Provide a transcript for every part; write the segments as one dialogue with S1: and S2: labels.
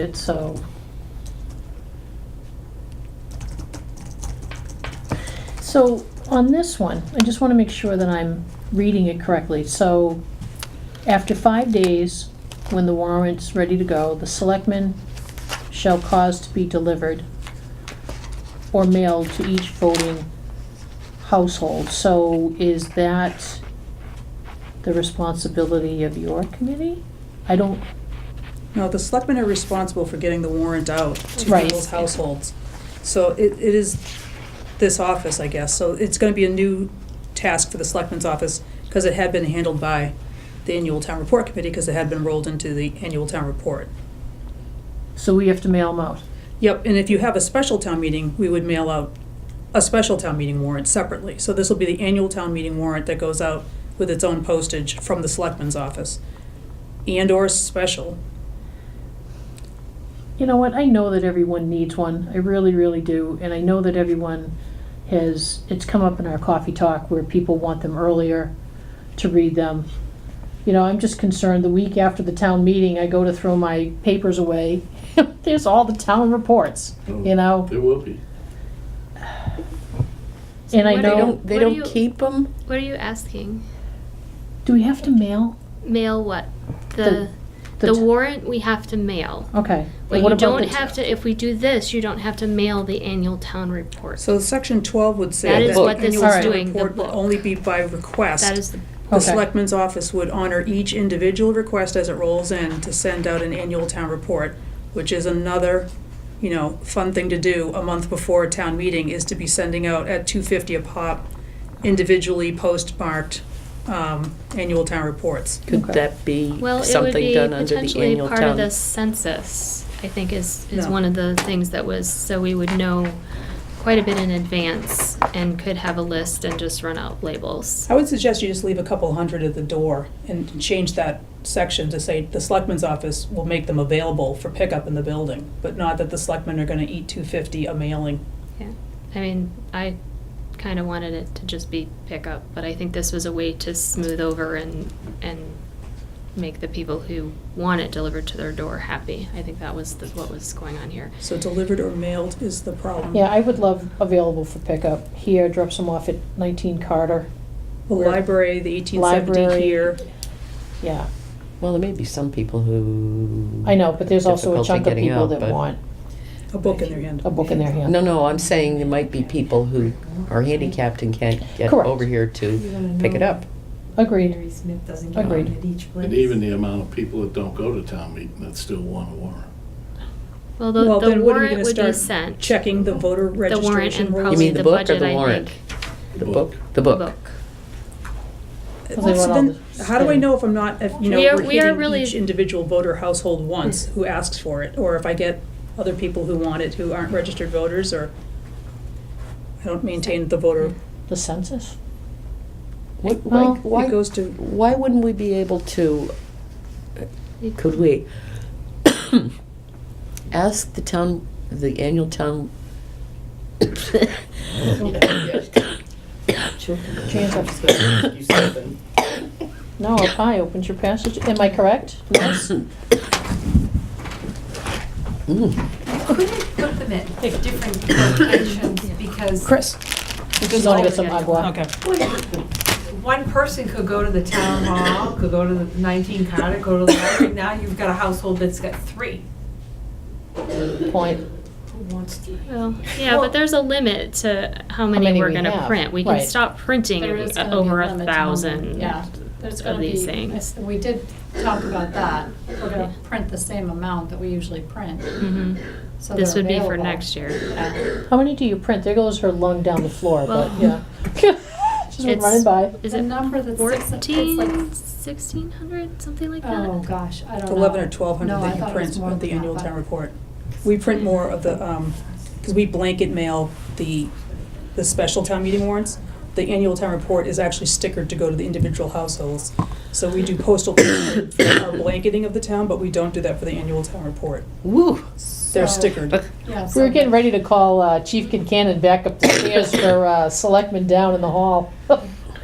S1: it, so. So on this one, I just want to make sure that I'm reading it correctly. So after five days, when the warrant's ready to go, the selectmen shall cause to be delivered or mailed to each voting household. So is that the responsibility of your committee? I don't,
S2: No, the selectmen are responsible for getting the warrant out to
S1: Right.
S2: people's households. So it, it is this office, I guess, so it's gonna be a new task for the selectmen's office, because it had been handled by the annual town report committee, because it had been rolled into the annual town report.
S1: so we have to mail them out?
S2: Yep, and if you have a special town meeting, we would mail out a special town meeting warrant separately. So this will be the annual town meeting warrant that goes out with its own postage from the selectman's office, and/or special.
S1: You know what, I know that everyone needs one, I really, really do, and I know that everyone has, it's come up in our coffee talk where people want them earlier to read them. You know, I'm just concerned, the week after the town meeting, I go to throw my papers away, there's all the town reports,
S3: Oh.
S1: you know?
S4: There will be.
S1: And I
S5: What do
S1: know-
S5: you-
S3: don't, they
S5: what do
S3: don't
S5: you-
S3: keep them?
S5: What are you asking?
S1: Do we have to mail?
S5: Mail what?
S1: The- the
S5: The, the,
S1: t-
S5: warrant we have to mail.
S1: Okay. what
S5: But you
S1: about
S5: don't
S1: the-
S5: have to, if we do this, you don't have to mail the annual town report.
S2: So section twelve would say
S5: That
S2: that
S5: is
S3: what
S2: the
S5: this
S2: annual
S1: is
S2: town
S5: doing, the
S2: report will
S5: book.
S2: only be by request.
S5: That is the,
S2: The
S1: Okay.
S2: selectman's office would honor each individual request as it rolls in to send out an annual town report, which is another, you know, fun thing to do a month before a town meeting is to be sending out at two fifty a pop individually postmarked, um, annual town reports.
S3: Could
S1: Okay.
S3: that be
S5: well, it would
S3: something
S5: be
S3: done under the
S5: potentially
S3: annual
S5: part of
S3: town?
S5: the census, I think is, is
S2: No.
S5: one of the things that was, so we would know quite a bit in advance and could have a list and just run out labels.
S2: I would suggest you just leave a couple hundred at the door and change that section to say the selectman's office will make them available for pickup in the building, but not that the selectmen are gonna eat two fifty a mailing.
S5: Yeah, I mean, I kind of wanted it to just be pickup, but I think this was a way to smooth over and, and make the people who want it delivered to their door happy. I think that was the, what was going on here.
S2: So delivered or mailed is the problem.
S1: Yeah, I would love available for pickup here, drop some off at 19 Carter,
S2: The
S1: Where-
S2: library, the eighteen seventy
S1: Library.
S2: here.
S1: yeah.
S3: Well, there may be some people who.
S1: I know, but there's also a
S3: difficulty
S1: chunk of
S3: getting
S1: people
S3: out,
S1: that
S3: but-
S1: want
S2: A book in their hand.
S1: a book in their hand.
S3: No, no, I'm saying there might be people who are handicapped and can't get
S1: Correct.
S3: over here
S6: You're gonna
S3: to pick it
S6: know.
S3: up.
S1: Agreed,
S6: Mary Smith doesn't get
S1: Agreed.
S6: one at each place.
S4: And even the amount of people that don't go to town meeting that still want a warrant.
S2: Well,
S5: Well, the, the
S2: then what are we
S5: warrant
S2: gonna
S5: would be
S2: start
S5: sent.
S2: checking the voter
S5: The warrant
S2: registration
S5: and
S2: rolls?
S3: You
S5: probably
S3: mean
S5: the
S3: the book or
S5: budget,
S3: the
S5: I
S3: warrant?
S5: think.
S3: The book, the book.
S1: Well, they
S2: So
S1: want all
S2: then,
S1: the
S2: how do I
S1: same.
S2: know if I'm not, if, you know,
S5: We are-
S2: we're
S5: we are
S2: hitting
S5: really-
S2: each individual voter household once who asks for it? Or if I get other people who want it who aren't registered voters or I don't maintain the voter,
S1: the census.
S3: What,
S1: Well,
S3: why,
S2: it
S3: why,
S2: goes to,
S3: why wouldn't we be able to,
S5: You-
S3: could we ask the town, the annual town?
S1: Jane's up. No, a pie opens your passage, am I correct? Yes?
S6: Couldn't put them at different locations because
S1: Chris? You just wanna get some agua.
S2: okay.
S6: one person could go to the town hall, could go to the 19 Carter, go to the library. Now you've got a household that's got three.
S1: Point,
S6: Who wants three?
S5: Well, yeah,
S6: Well-
S5: but there's a limit to how many
S1: many
S5: we're
S1: we
S5: gonna
S1: have,
S5: print. We can
S1: right.
S5: stop printing
S7: There is gonna be
S5: over a
S7: limit to how many-
S5: thousand
S7: Yeah, there's
S5: of
S7: gonna
S5: these
S7: be, uh,
S5: things.
S7: we did talk about that. We're gonna
S5: Yeah.
S7: print the same amount that we usually print.
S5: Mhm.
S7: so
S5: This
S7: they're
S5: would be for
S7: available.
S5: next year.
S7: Yeah.
S1: how many do you print? There goes her lung down the floor, but,
S5: Well-
S1: yeah. Just went
S5: It's-
S1: running by.
S5: Is
S7: The
S5: it
S7: number that's six- it's
S5: fourteen,
S7: like-
S5: sixteen hundred, something like that?
S7: Oh, gosh, I don't know.
S2: Eleven or twelve
S7: No,
S2: hundred
S7: I
S2: that you
S7: thought it was
S2: print
S7: more
S2: with the
S7: than that,
S2: annual
S7: but-
S2: town report. We print more of the, um, because we blanket mail the, the special town meeting warrants. The annual town report is actually stickered to go to the individual households. So we do postal for our blanketing of the town, but we don't do that for the annual town report.
S3: Woo,
S2: They're
S7: So-
S2: stickered.
S7: Yeah, so-
S1: We were getting ready to call uh, Chief Kincannon back up the stairs for uh, selectmen down in the hall.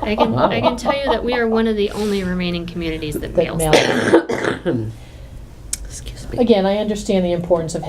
S5: I can, I can tell you that we are one of the only remaining communities that
S1: That
S5: mails.
S1: mail.
S5: them.
S3: excuse
S1: again, I understand the importance of